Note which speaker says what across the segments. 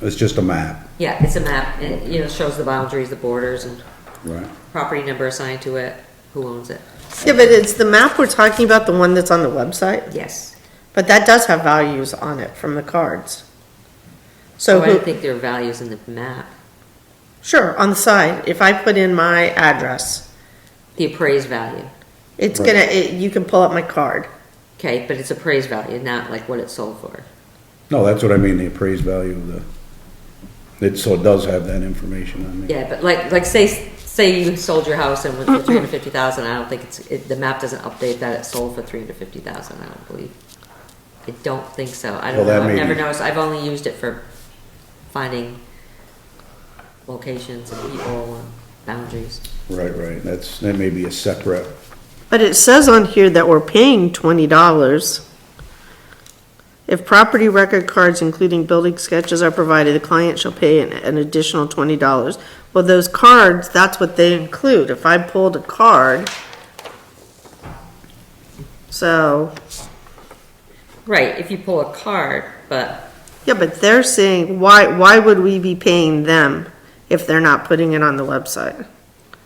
Speaker 1: It's just a map,
Speaker 2: Yeah, it's a map, and, you know, shows the boundaries, the borders, and
Speaker 1: right?
Speaker 2: property number assigned to it, who owns it.
Speaker 3: Yeah, but it's the map we're talking about, the one that's on the website,
Speaker 2: Yes.
Speaker 3: but that does have values on it from the cards. So,
Speaker 2: So I don't
Speaker 3: who-
Speaker 2: think there are values in the map.
Speaker 3: sure, on the side, if I put in my address,
Speaker 2: The appraised value,
Speaker 3: it's
Speaker 1: Right.
Speaker 3: gonna, it- you can pull up my card.
Speaker 2: okay, but it's appraised value, not like what it sold for.
Speaker 1: No, that's what I mean, the appraised value of the, it, so it does have that information on there.
Speaker 2: Yeah, but like, like say, say you sold your house and went for three hundred fifty thousand, I don't think it's, it, the map doesn't update that it sold for three hundred fifty thousand, I don't believe. I don't think so, I
Speaker 1: Well,
Speaker 2: don't
Speaker 1: that
Speaker 2: know, I've
Speaker 1: may
Speaker 2: never
Speaker 1: be-
Speaker 2: noticed, I've only used it for finding locations and people and boundaries.
Speaker 1: Right, right, that's, that may be a separate,
Speaker 3: But it says on here that we're paying twenty dollars. If property record cards, including building sketches, are provided, the client shall pay an, an additional twenty dollars. Well, those cards, that's what they include. If I pulled a card. So,
Speaker 2: Right, if you pull a card, but,
Speaker 3: yeah, but they're saying, why, why would we be paying them if they're not putting it on the website?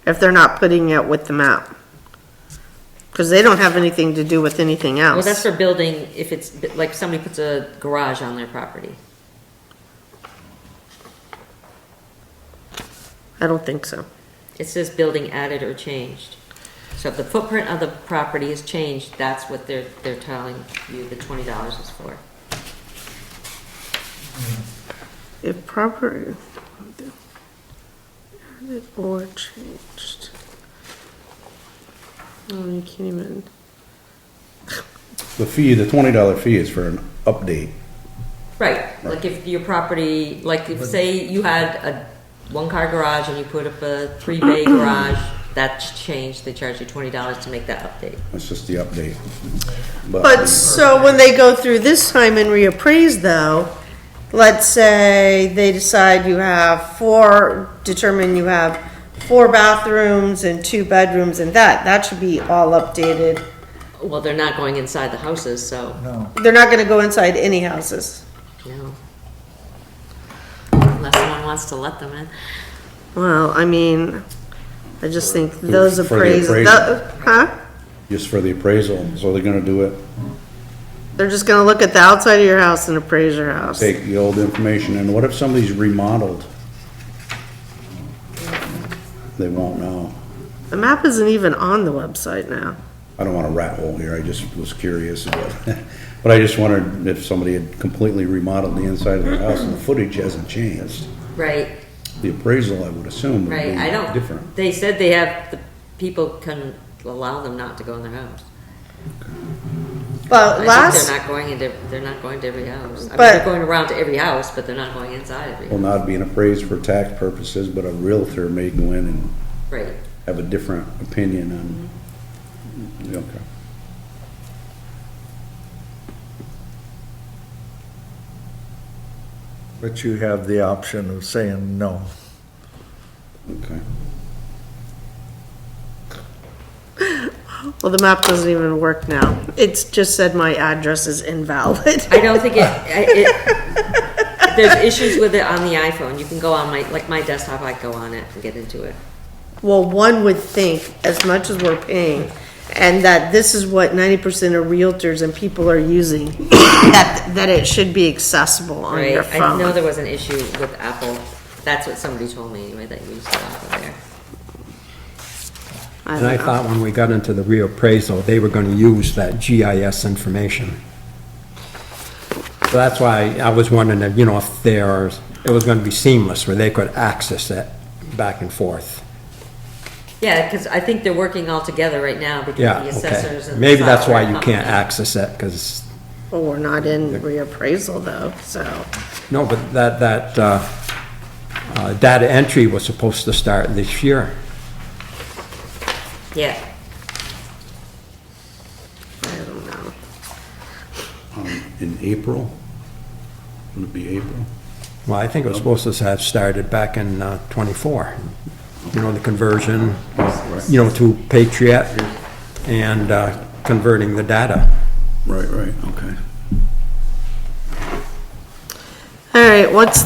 Speaker 3: If they're not putting it with the map? Cause they don't have anything to do with anything else.
Speaker 2: well, that's for building, if it's, like, somebody puts a garage on their property.
Speaker 3: I don't think so.
Speaker 2: It says building added or changed. So if the footprint of the property is changed, that's what they're, they're telling you the twenty dollars is for.
Speaker 3: If proper, added or changed. Oh, you can't even,
Speaker 1: the fee, the twenty dollar fee is for an update.
Speaker 2: Right, like if your property, like if, say you had a one-car garage and you put up a three-bay garage, that's changed, they charge you twenty dollars to make that update.
Speaker 1: That's just the update.
Speaker 3: but so when they go through this time and reappraise though, let's say they decide you have four, determine you have four bathrooms and two bedrooms and that, that should be all updated.
Speaker 2: Well, they're not going inside the houses, so,
Speaker 4: No,
Speaker 3: They're not gonna go inside any houses.
Speaker 2: no. Unless someone wants to let them in.
Speaker 3: Well, I mean, I just think those
Speaker 1: For the
Speaker 3: appraise,
Speaker 1: appraisal.
Speaker 3: tho- huh?
Speaker 1: Just for the appraisal, so they're gonna do it,
Speaker 3: They're just gonna look at the outside of your house and appraise your house.
Speaker 1: take the old information, and what if somebody's remodeled? They won't know.
Speaker 3: The map isn't even on the website now.
Speaker 1: I don't want to rat hole here, I just was curious about, but I just wondered if somebody had completely remodeled the inside of the house and the footage hasn't changed.
Speaker 2: Right,
Speaker 1: The appraisal, I would assume, would
Speaker 2: Right, I
Speaker 1: be different.
Speaker 2: don't, they said they have, the people can allow them not to go in their house. I
Speaker 3: But
Speaker 2: think
Speaker 3: last,
Speaker 2: They're not going into, they're not going to every house. I mean,
Speaker 3: But-
Speaker 2: they're going around to every house, but they're not going inside every,
Speaker 1: Will not be an appraised for tax purposes, but a realtor may go in and
Speaker 2: right.
Speaker 1: have a different opinion on,
Speaker 2: Mm-hmm.
Speaker 1: okay.
Speaker 4: but you have the option of saying no.
Speaker 1: Okay.
Speaker 3: well, the map doesn't even work now. It's just said my address is invalid.
Speaker 2: I don't think it, I- it, there's issues with it on the iPhone. You can go on my, like my desktop, I go on it and get into it.
Speaker 3: Well, one would think, as much as we're paying, and that this is what ninety percent of realtors and people are using, that, that it should be accessible on
Speaker 2: Right,
Speaker 3: your
Speaker 2: I know
Speaker 3: phone.
Speaker 2: there was an issue with Apple. That's what somebody told me anyway, that you used it off of there.
Speaker 3: I
Speaker 5: And I
Speaker 3: don't know.
Speaker 5: thought when we got into the reappraisal, they were going to use that GIS information. So that's why I was wondering, if, you know, if there's, it was going to be seamless, where they could access it back and forth.
Speaker 2: Yeah, because I think they're working all together right now between
Speaker 5: Yeah,
Speaker 2: the assessors
Speaker 5: okay.
Speaker 2: and. the
Speaker 5: Maybe that's why
Speaker 2: software
Speaker 5: you can't
Speaker 2: company.
Speaker 5: access it, because,
Speaker 3: Well, we're not in reappraisal though, so.
Speaker 5: no, but that, that, uh, uh, data entry was supposed to start this year.
Speaker 2: Yeah.
Speaker 3: I don't know.
Speaker 1: Um, In April? Would it be April?
Speaker 5: Well, I think it was supposed to have started back in uh, '24. You know, the conversion, you know, to Patriot and uh, converting the data.
Speaker 1: Right, right, okay.
Speaker 3: All right, what's